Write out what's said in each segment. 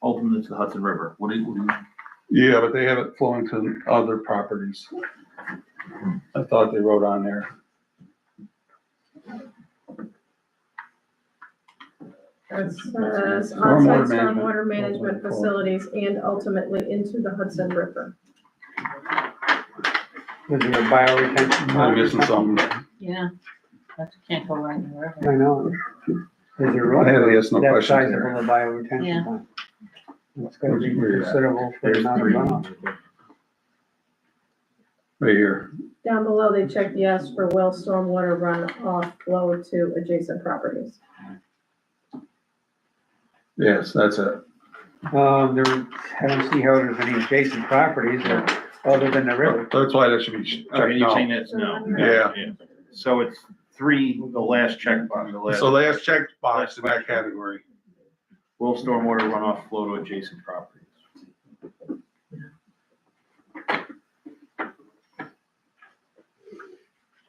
open it to the Hudson River. What do you, what do you? Yeah, but they have it flowing to other properties. I thought they wrote on there. It says Stormwater onsite management. uh, stormwater management facilities and ultimately into the Hudson River. Was there a bio retention? I'm missing something. Yeah, that can't go right in the river. I know. Is there I room? had to ask no That questions size there. of a bio retention Yeah. pond. It's gonna be Where you at? considerable for the amount of runoff. Right here. Down below, they checked yes for well stormwater runoff flow to adjacent properties. Yes, that's it. Um, there, I don't see how there's any adjacent properties or- other than the river. That's why that should be checked Okay, you're saying out. that's no. Uh, Yeah. So it's three, the last checkbox, the last, So last check box in that category. will stormwater runoff flow to adjacent properties?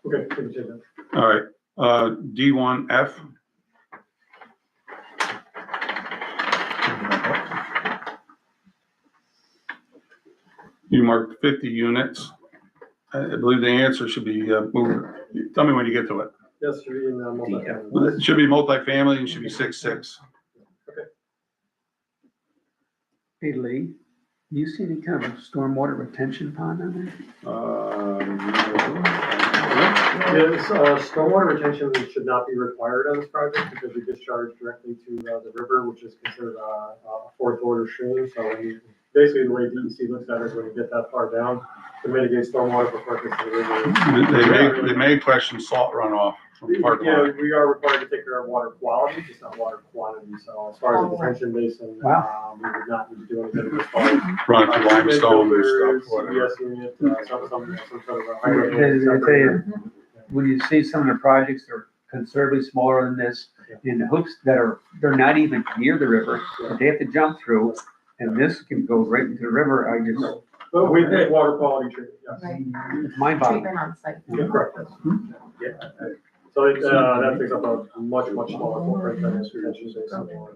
All right, uh, D one F. You marked fifty units. I I believe the answer should be, uh, move, tell me when you get to it. Yes, you're in the multifamily. It should be multifamily and should be six, six. Hey Lee, you see any kind of stormwater retention pond on there? Uh, Um, Yes, uh, stormwater retention should not be required on this project because we discharge directly to uh, the river, which is considered uh, a fourth order stream. So we- basically, the way DEC looks at it is when you get that far down, to mitigate stormwater before it gets to the river. They may, they may question salt runoff from parking lot. Yeah, we are required to take care of water quality, just not water quantity. So as far as the detention basin, uh, we would not need to do anything as far as run through limestone and stuff, whatever. Yes, unit, uh, some, some, some sort of a They- they- they tell hydro. you, When you see some of the projects that are considerably smaller than this, in the hoops that are, they're not even near the river, that they have to jump through, and this can go right into the river, I just, But we did water quality treatment, yes. Right, it's mind boggling. treatment on site. Yeah, correct. Hmm? Yeah. So it, uh, that takes up a much, much smaller footprint than this retention basin.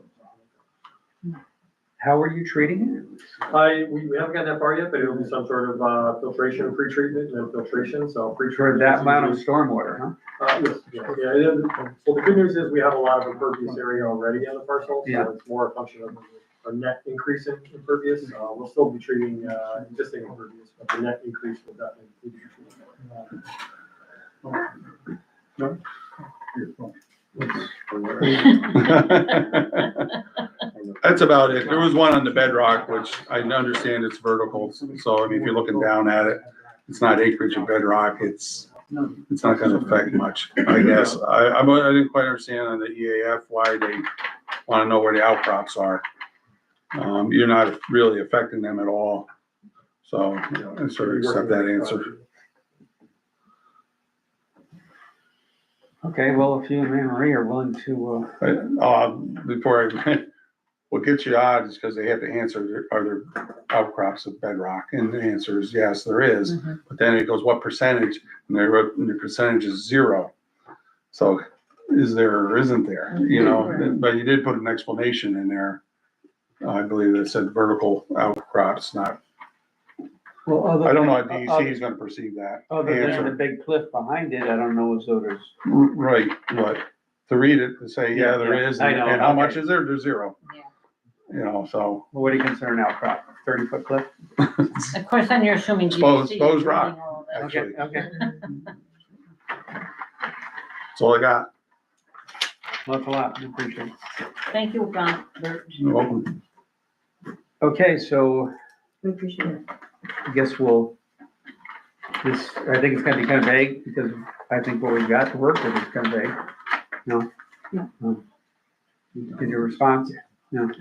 How are you treating I, we, we haven't gotten that far yet, but it'll be some sort of, uh, filtration, pre-treatment, and then filtration, so it? For pre-treatment. that amount of stormwater, huh? Uh, yes, yeah, yeah, it is. well, the good news is we have a lot of impervious area already on the parcel, Yeah. so it's more a function of a net increase in impervious. Uh, we'll still be treating, uh, existing impervious, but the net increase will definitely. be treated. That's about it. There was one on the bedrock, which I understand it's vertical, so I mean, if you're looking down at it, it's not acreage of bedrock, it's, it's not gonna affect much, I guess. I, I'm- I didn't quite understand on the EAF why they wanna know where the outcrops are. Um, you're not really affecting them at all, so you know, I sort of accept that answer. Okay, well, if you and Anne Marie are willing to, uh, But, uh, before I, what gets you odd is because they have to answer, are there outcrops of bedrock? And the answer is yes, there is. Mhm. But then it goes, what percentage? And they wrote, and the percentage is zero. So is there or isn't there, you know? But you did put an explanation in there. I believe that said vertical outcrops, not, well, other. I don't know how than- other- DEC is gonna perceive that. Other than the answer. big cliff behind it, I don't know as though there's, R- Right, but to read it and say, yeah, there is, I know, and how much okay. is there? There's zero. Yeah. You know, so. what do you consider an outcrop, thirty foot cliff? Of course, then you're assuming. Exposed- DEC is exposed rock. doing all that. Okay, Actually, okay. that's all I got. Look a lot, I appreciate it. Thank you, Robert. You're welcome. Okay, so We appreciate it. I guess we'll, this, I think it's gonna be kind of vague, because I think what we've got to work with is kind of vague. No? No. No. Did your response? No.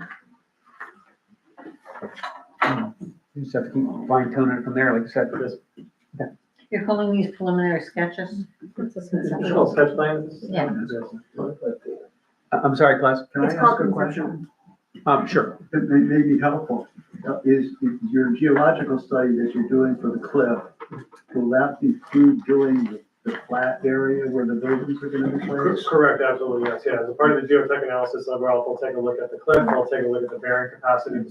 You just have to keep fine tuning it from there, like I said. Yes. You're calling these preliminary sketches? It's a sensible- Additional sketch plans? Yeah. I- I'm sorry, class, can I It's ask called a question? conceptual. Um, sure. It may, may be helpful, Uh, is, is your geological study that you're doing for the cliff, will that include doing the, the flat area where the buildings are gonna be Cor- placed? Correct, uh, absolutely, yes, yeah, as a part of the geotech analysis, I'll, I'll take a look at the cliff, I'll take a look at the bearing capacity,